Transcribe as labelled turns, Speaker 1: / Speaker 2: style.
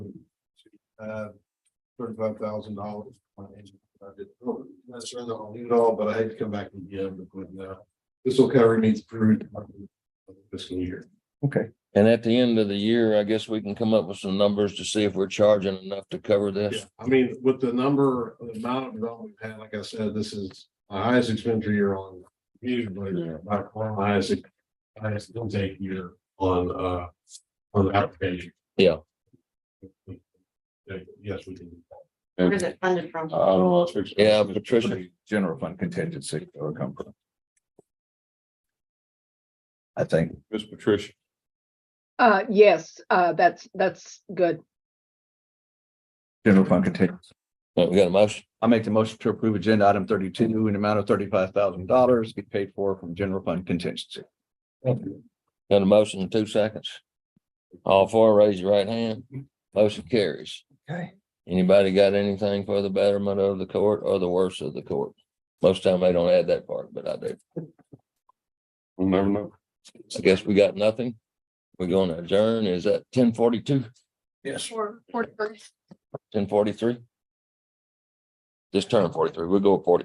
Speaker 1: uh, thirty-five thousand dollars. That's right, I'll leave it all, but I had to come back again, but, uh, this will cover needs approved fiscal year.
Speaker 2: Okay,
Speaker 3: And at the end of the year, I guess we can come up with some numbers to see if we're charging enough to cover
Speaker 1: Yeah,
Speaker 3: this.
Speaker 1: I mean, with the number, the amount of development we've had, like I said, this is my highest expenditure year on. Usually,
Speaker 3: Yeah.
Speaker 1: my highest, highest intake year on, uh, on the application.
Speaker 3: Yeah.
Speaker 1: Yeah, Yes, we can. do that.
Speaker 4: Where is it funded from?
Speaker 2: don't know. if it's-
Speaker 3: Yeah, Patricia.
Speaker 2: General fund contingency will come from. I think. Miss Patricia.
Speaker 5: Uh, yes, uh, that's, that's good.
Speaker 2: General fund contingency.
Speaker 3: Uh, We got a motion?
Speaker 2: I make the motion to approve agenda item thirty-two in the amount of thirty-five thousand dollars be paid for from general fund contingency.
Speaker 3: Got a motion in two seconds. All four, raise your right hand. Motion carries.
Speaker 2: Okay.
Speaker 3: Anybody got anything for the betterment of the court or the worse of the court? Most time they don't add that part, but I do.
Speaker 6: We'll never know.
Speaker 3: I guess we got nothing. We're gonna adjourn. Is that ten forty-two,
Speaker 2: Yes.
Speaker 3: ten forty-three? Just turn forty-three. We'll go forty.